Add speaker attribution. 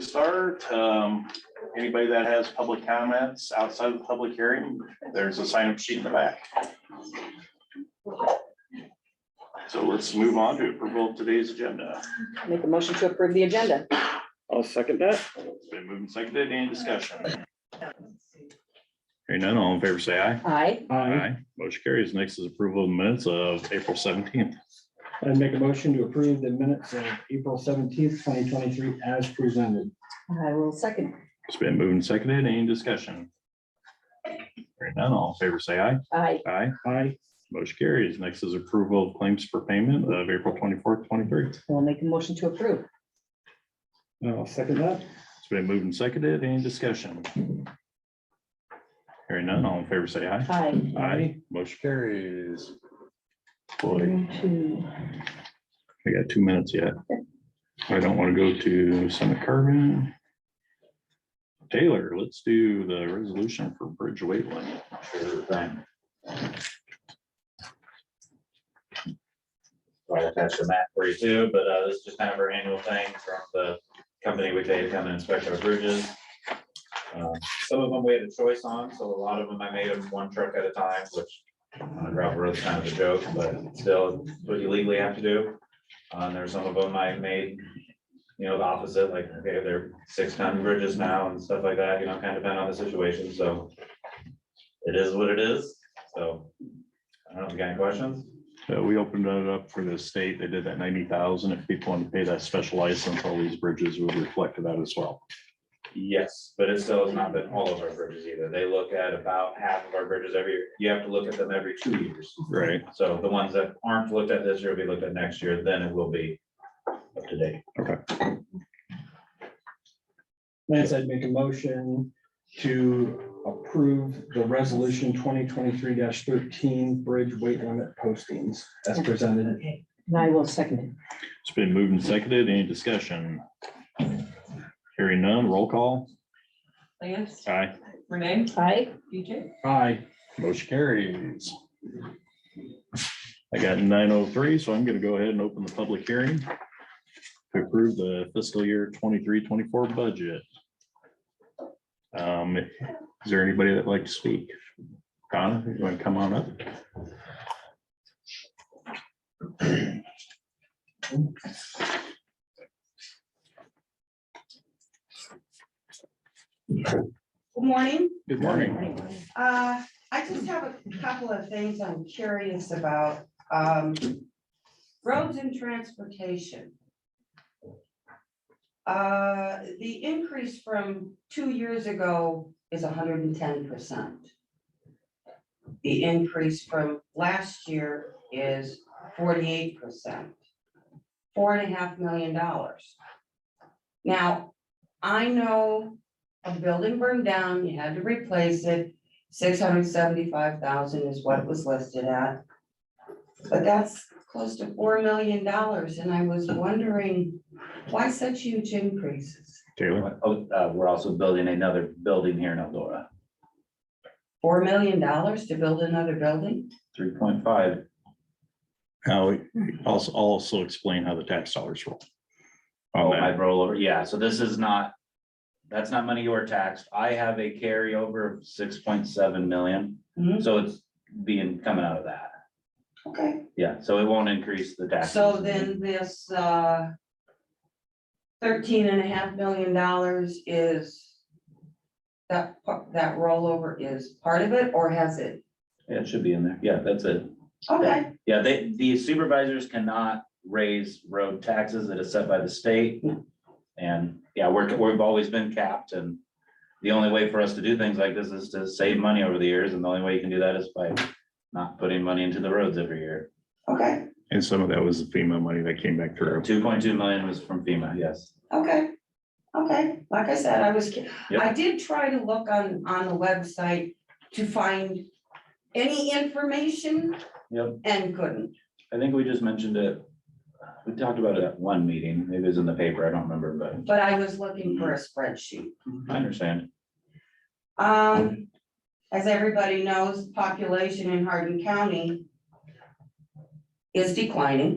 Speaker 1: start, um, anybody that has public comments outside of the public hearing, there's a sign up sheet in the back. So let's move on to approval of today's agenda.
Speaker 2: Make a motion to approve the agenda.
Speaker 3: I'll second that.
Speaker 1: It's been moved and seconded. Any discussion? Hearing none, all in favor, say aye.
Speaker 2: Aye.
Speaker 1: Motion carries. Next is approval of minutes of April seventeenth.
Speaker 3: I'd make a motion to approve the minutes of April seventeenth, twenty twenty-three as presented.
Speaker 2: I will second.
Speaker 1: It's been moved and seconded. Any discussion? Hearing none, all in favor, say aye.
Speaker 2: Aye.
Speaker 1: Aye.
Speaker 3: Aye.
Speaker 1: Motion carries. Next is approval of claims for payment of April twenty-fourth, twenty-three. It's
Speaker 2: We'll make a motion to approve.
Speaker 3: I'll second that.
Speaker 1: been moved and seconded. Any discussion? Hearing none, all in favor, say aye.
Speaker 2: Aye.
Speaker 1: Aye. Motion carries. Boy,
Speaker 2: Two.
Speaker 1: I got two minutes yet. I don't want to go to Senate Carbon. Taylor, let's do the resolution for Bridge weight limit.
Speaker 4: Well, attach the map for you too, but uh, this is just kind of our annual thing from the company we pay to come and inspect our bridges. Um, Some of them we had a choice on, so a lot of them I made them one truck at a time, which on a gravel road is kind of a joke, but still it's what you legally have to do. Uh, And there's some of them I made, you know, the opposite, like, okay, they're six ton bridges now and stuff like that, you know, kind of depend on the situation, so. It is what it is, so. I don't know if you got any questions?
Speaker 1: So Uh, we opened it up for the state. They did that ninety thousand. If people want to pay that special license, all these bridges would reflect that as well.
Speaker 4: Yes, but it still has not been all of our bridges either. They look at about half of our bridges every, year. you have to look at them every two years.
Speaker 1: Right.
Speaker 4: So the ones that aren't looked at this year will be looked at next year, then it will be up to date.
Speaker 3: Lance, I'd make a motion to approve the resolution twenty twenty-three thirteen bridge weight limit postings as presented.
Speaker 2: And I will second
Speaker 1: It's been moved and seconded. Any discussion? Hearing none, roll call.
Speaker 5: Lance,
Speaker 1: Aye.
Speaker 5: Renee,
Speaker 2: it. Aye.
Speaker 5: DJ,
Speaker 3: Aye.
Speaker 1: Motion carries. I got nine oh three, so I'm gonna go ahead and open the public hearing to approve the fiscal year 23-24 budget. Um, is there anybody that'd like to speak? Donna, you want to come on up?
Speaker 6: Good morning.
Speaker 1: Good morning.
Speaker 6: Uh, I just have a couple of things I'm curious about. Um, roads and transportation. Uh, the increase from two years ago is hundred and ten percent. The increase from last year is forty-eight percent. Four and a half million dollars. Now, I know a building burned down, you had to replace it. Six hundred seventy-five thousand is what it was listed at. But that's close to four million dollars, and I was wondering, why such huge increases?
Speaker 1: Taylor,
Speaker 4: Oh, uh, we're also building another building here in Eldora,
Speaker 6: Four million dollars to build another building?
Speaker 4: three point five.
Speaker 1: now, also, also explain how the tax dollars roll.
Speaker 4: Oh,
Speaker 1: On that.
Speaker 4: rollover, yeah, so this is not, that's not money you are taxed. I have a carryover of six point seven million.
Speaker 6: Mhm.
Speaker 4: So it's being, coming out of that.
Speaker 6: Okay.
Speaker 4: Yeah, so it won't increase the tax.
Speaker 6: So then this, uh, thirteen and a half million dollars is, that, pa- that rollover is part of it, or has it?
Speaker 4: Yeah, it should be in there. Yeah, that's it.
Speaker 6: Okay,
Speaker 4: Yeah, they, the supervisors cannot raise road taxes that is set by the state. And, yeah, we're, we've always been capped and the only way for us to do things like this is to save money over the years, and the only way you can do that is by not putting money into the roads every year.
Speaker 6: okay,
Speaker 1: And some of that was the FEMA money that came back through.
Speaker 4: Two point two million was from FEMA, yes.
Speaker 6: okay, okay, like I said, I was, ki-
Speaker 4: Yep.
Speaker 6: I did try to look on, on the website to find any information
Speaker 4: Yep,
Speaker 6: and couldn't.
Speaker 4: I think we just mentioned it. We talked about it at one meeting, maybe it was in the paper, I don't remember, but
Speaker 6: But I was looking for a spreadsheet.
Speaker 4: I understand.
Speaker 6: Um, as everybody knows, population in Hardin County is declining.